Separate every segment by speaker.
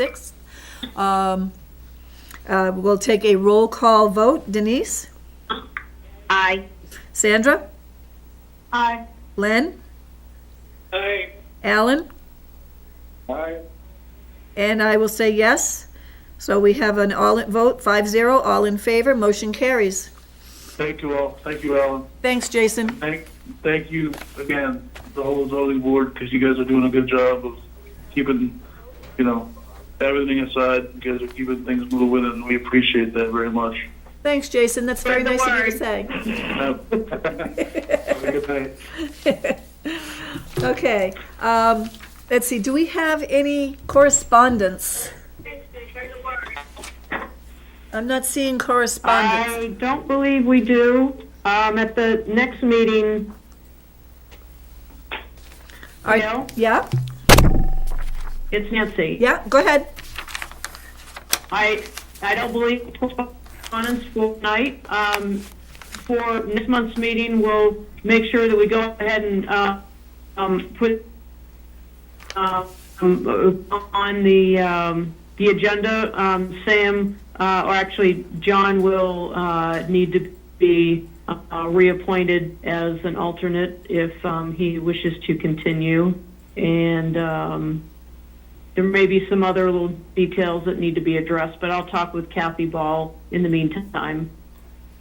Speaker 1: 6th. Um, uh, We'll take a roll call vote. Denise?
Speaker 2: Aye.
Speaker 1: Sandra?
Speaker 2: Aye.
Speaker 1: Len?
Speaker 2: Aye.
Speaker 1: Alan?
Speaker 2: Aye.
Speaker 1: And I will say yes. So we have an all vote, 5-0, all in favor, motion carries.
Speaker 3: Thank you all. Thank you, Alan.
Speaker 1: Thanks, Jason.
Speaker 3: Thank, thank you again, the whole zoning board, because you guys are doing a good job of keeping, you know, everything aside. You guys are keeping things moving, and we appreciate that very much.
Speaker 1: Thanks, Jason, that's very
Speaker 2: Spread
Speaker 1: nice
Speaker 2: the
Speaker 1: of you to say.
Speaker 3: Have a good night.
Speaker 1: Okay, um, let's see, do we have any correspondence? I'm not seeing correspondence.
Speaker 2: I don't believe we do. Um, at the next meeting,
Speaker 1: Are-
Speaker 2: Bill?
Speaker 1: Yeah,
Speaker 2: it's Nancy.
Speaker 1: yeah, go ahead.
Speaker 2: I, I don't believe correspondence for tonight. Um, for next month's meeting, we'll make sure that we go ahead and, uh, um, put, uh, um, on the, um, the agenda, um, Sam, uh, or actually, John will, uh, need to be, uh, reappointed as an alternate if, um, he wishes to continue. And, um, there may be some other little details that need to be addressed, but I'll talk with Kathy Ball in the meantime.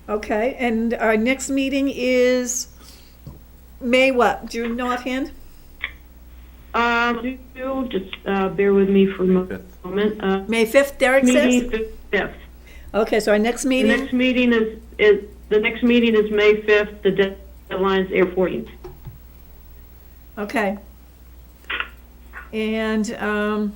Speaker 1: Okay, and our next meeting is May what? Do you know offhand?
Speaker 2: Um, do you- just, uh, bear with me for a mo- moment. Uh,
Speaker 1: May 5th, Derek
Speaker 2: meeting
Speaker 1: says?
Speaker 2: is fifth.
Speaker 1: Okay, so our next
Speaker 2: The
Speaker 1: meeting?
Speaker 2: next meeting is, is, the next meeting is May fifth, the de- deadline's April fourteenth.
Speaker 1: Okay. And, um,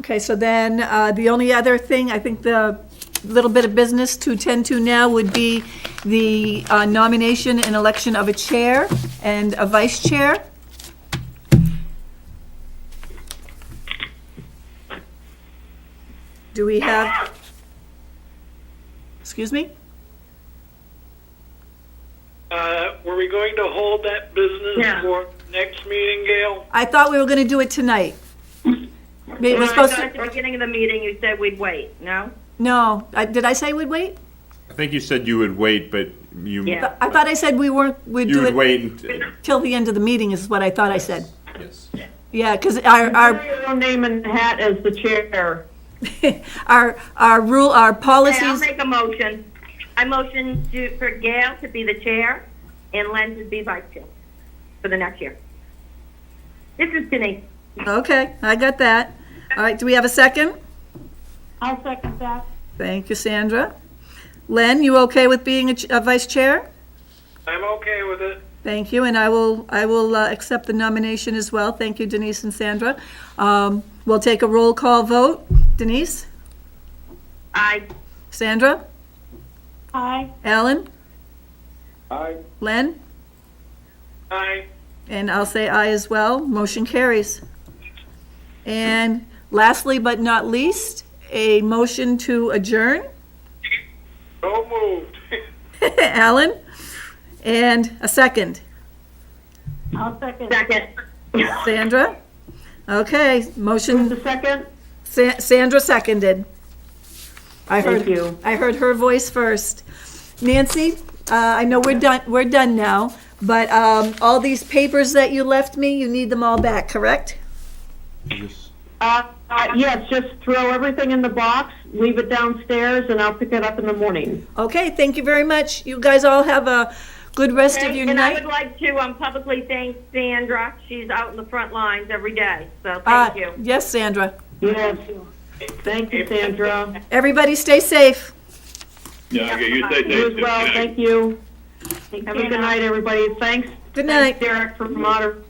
Speaker 1: okay, so then, uh, the only other thing, I think the little bit of business to tend to now would be the uh, nomination and election of a chair and a vice chair. Do we have? Excuse me?
Speaker 4: Uh, were we going to hold that business
Speaker 2: Yeah.
Speaker 4: for next meeting, Gail?
Speaker 1: I thought we were gonna do it tonight. Maybe we're
Speaker 5: Well, I
Speaker 1: supposed
Speaker 5: thought at
Speaker 1: to,
Speaker 5: the beginning of the meeting, you said we'd wait, no?
Speaker 1: no, I- did I say we'd wait?
Speaker 6: I think you said you would wait, but you,
Speaker 5: Yeah.
Speaker 1: I thought I said we weren't, we'd
Speaker 6: you
Speaker 1: do
Speaker 6: would
Speaker 1: it
Speaker 6: wait and,
Speaker 1: till the end of the meeting is what I thought I said.
Speaker 6: yes.
Speaker 1: Yeah, because our, our,
Speaker 2: Your own name and hat as the chair.
Speaker 1: our, our rule, our
Speaker 5: Okay, I'll
Speaker 1: policies,
Speaker 5: make a motion. I motion to, for Gail to be the chair and Len to be vice chair for the next year. This is Denise.
Speaker 1: okay, I got that. All right, do we have a second?
Speaker 2: I'll second that.
Speaker 1: Thank you, Sandra. Len, you okay with being a ch- a vice chair?
Speaker 4: I'm okay with it.
Speaker 1: Thank you, and I will, I will uh, accept the nomination as well. Thank you, Denise and Sandra. Um, We'll take a roll call vote. Denise?
Speaker 5: Aye.
Speaker 1: Sandra?
Speaker 2: Aye.
Speaker 1: Alan?
Speaker 3: Aye.
Speaker 1: Len?
Speaker 4: I,
Speaker 1: And I'll say aye as well. Motion carries. And lastly but not least, a motion to adjourn.
Speaker 4: so moved.
Speaker 1: Alan? And a second.
Speaker 2: I'll second.
Speaker 5: Second.
Speaker 1: Sandra? Okay, motion,
Speaker 2: The second?
Speaker 1: Sa- Sandra seconded. I heard
Speaker 2: Thank you.
Speaker 1: I heard her voice first. Nancy, uh, I know we're done, we're done now, but um, all these papers that you left me, you need them all back, correct?
Speaker 2: Uh, uh, yes, just throw everything in the box, leave it downstairs, and I'll pick it up in the morning.
Speaker 1: Okay, thank you very much. You guys all have a good rest of your
Speaker 5: And I
Speaker 1: night.
Speaker 5: would like to um, publicly thank Sandra. She's out in the front lines every day, so
Speaker 1: Uh,
Speaker 5: thank you.
Speaker 1: Yes, Sandra.
Speaker 2: Yes. Thank you, Sandra.
Speaker 1: Everybody stay safe.
Speaker 3: Yeah, okay, you say
Speaker 2: You as well, thank you. Have a good night, everybody. Thanks.
Speaker 1: Good night.
Speaker 2: Thanks, Derek, for moderating.